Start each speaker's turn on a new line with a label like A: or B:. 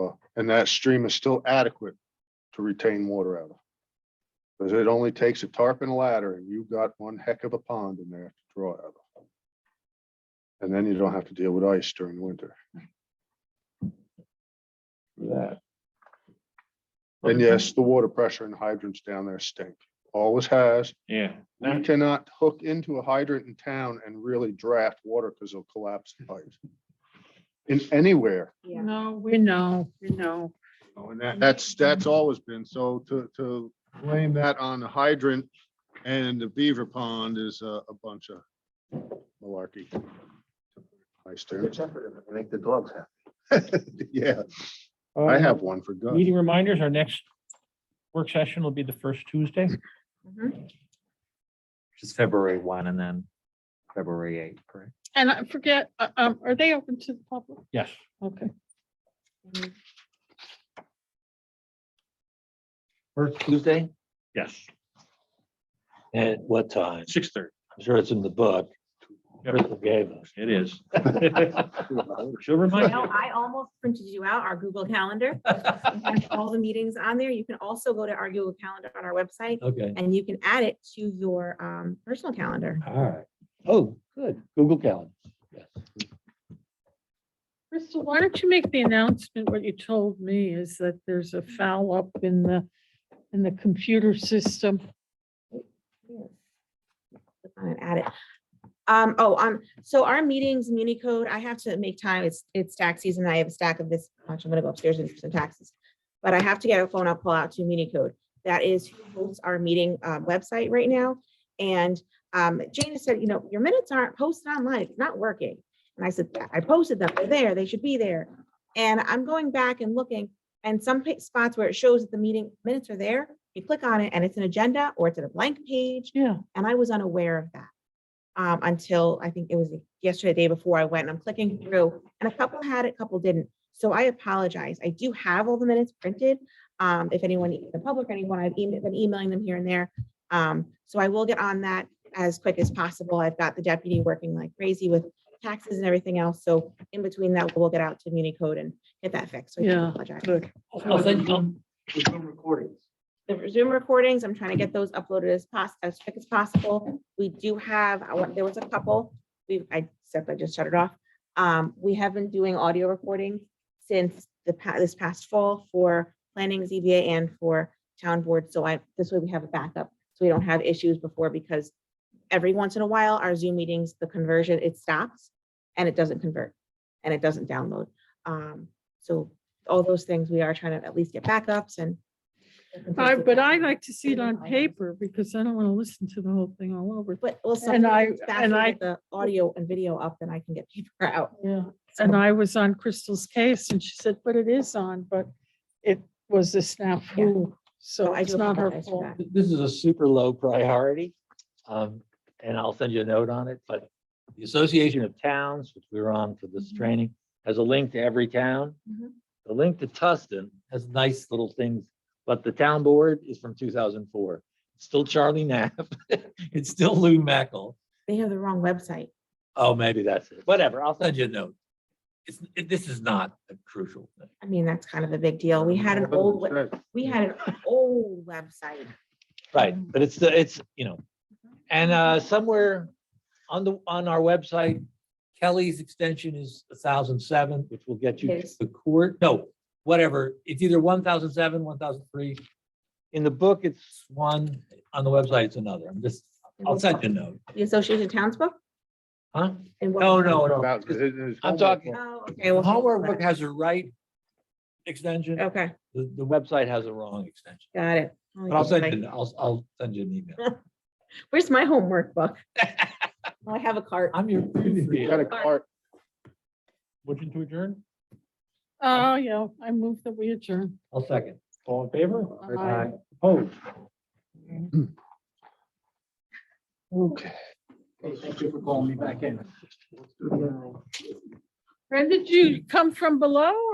A: and that stream is still adequate to retain water out of. Because it only takes a tarp and a ladder, and you've got one heck of a pond in there to draw out of. And then you don't have to deal with ice during the winter.
B: for that.
A: And yes, the water pressure and hydrants down there stink, always has.
B: Yeah.
A: You
B: Now,
A: cannot hook into a hydrant in town and really draft water because it'll collapse the pipe. In anywhere,
C: Yeah.
D: No, we know, we know.
A: Oh, and that, that's, that's always been, so to, to blame that on the hydrant and the beaver pond is a, a bunch of malarkey. I stare,
E: Make the dogs happy.
A: yeah, I
B: uh,
A: have one for God.
B: Meeting reminders, our next work session will be the first Tuesday.
F: Which is February one and then February eight, correct?
D: And I forget, uh, um, are they open to the public?
B: Yes.
D: Okay.
F: First Tuesday?
B: Yes.
G: At what time?
B: Six thirty.
G: I'm sure it's in the book.
B: Yep.
G: Crystal gave us.
B: It is. She'll remind
C: No,
B: you.
C: I almost printed you out our Google Calendar. We have All the meetings on there. You can also go to our Google Calendar on our website
G: Okay,
C: and you can add it to your um, personal calendar.
G: all right. Oh, good. Google Calendar. Yes.
D: Crystal, why don't you make the announcement? What you told me is that there's a foul up in the, in the computer system.
C: Click on it, Add it. Um, oh, um, so our meetings, Muni Code, I have to make time. It's, it's tax season. I have a stack of this much. I'm gonna go upstairs and do some taxes. But I have to get a phone, I'll pull out to Muni Code. That is who hosts our meeting, uh, website right now. And, um, Jane said, you know, your minutes aren't posted online. It's not working. And I said, I posted them. They're there. They should be there. And I'm going back and looking and some pa- spots where it shows that the meeting minutes are there. You click on it and it's an agenda or it's in a blank page
D: Yeah.
C: and I was unaware of that. Um, until I think it was yesterday, the day before I went and I'm clicking through and a couple had it, a couple didn't. So I apologize. I do have all the minutes printed. Um, if anyone, the public, or anyone, I've emailed, been emailing them here and there. Um, so I will get on that as quick as possible. I've got the deputy working like crazy with taxes and everything else. So in between that, we'll get out to Muni Code and get that fixed. So I do
D: Yeah.
C: apologize.
D: Good.
G: I'll send Oh, you the recordings.
C: the Zoom recordings, I'm trying to get those uploaded as fast, as quick as possible. We do have, I want, there was a couple, we, I said, I just shut it off. Um, we have been doing audio recordings since the pa- this past fall for planning ZBA and for town board, so I, this way we have a backup, so we don't have issues before, because every once in a while, our Zoom meetings, the conversion, it stops and it doesn't convert, and it doesn't download. Um, so all those things, we are trying to at least get backups and.
D: I, Uh, but I like to see it on paper because I don't want to listen to the whole thing all over.
C: But well,
D: And I-
C: sometimes
D: and
C: faster
D: I-
C: with the audio and video up than I can get paper out.
D: Yeah. And I was on Crystal's case and she said, but it is on, but it was a snafu. So
C: So I
D: it's
C: do
D: not her
C: apologize for
D: fault.
C: that.
G: This is a super low priority. Um, and I'll send you a note on it, but the Association of Towns, which we were on for this
C: Mhm.
G: training, has a link to every town.
C: Mhm.
G: The link to Tustin has nice little things, but the town board is from two thousand four. Still Charlie Knapp. It's still Lou Mackel.
C: They have the wrong website.
G: Oh, maybe that's it. Whatever. I'll send you a note. It's, it- this is not a crucial thing.
C: I mean, that's kind of a big deal. We had an old, we- we had an old website.
G: Right, but it's, the it's, you know, and uh somewhere on the, on our website, Kelly's extension is thousand seven, which will get you to
C: Yes.
G: the court, no, whatever, it's either one thousand seven, one thousand three. In the book, it's one, on the website, it's another, I'm just, I'll send you a note,
C: The Association of Towns book?
G: huh?
C: And what-
G: No, no, no,
A: About- it is
G: I'm
A: homework.
G: talking-
C: Oh, okay.
G: the
C: well,
G: homework book has a right extension,
C: Okay,
G: the, the website has a wrong extension,
C: got it.
G: but I'll send you, I'll, I'll send you an email.
C: Where's my homework book? Oh, I have a cart.
G: I'm your.
A: You got a cart,
G: Motion to adjourn?
D: Oh, yeah, I moved that we adjourn.
G: I'll second. All in favor?
D: Aye.
G: Opposed?
A: okay.
G: Thank you for calling me back in.
D: Brenda, did you come from below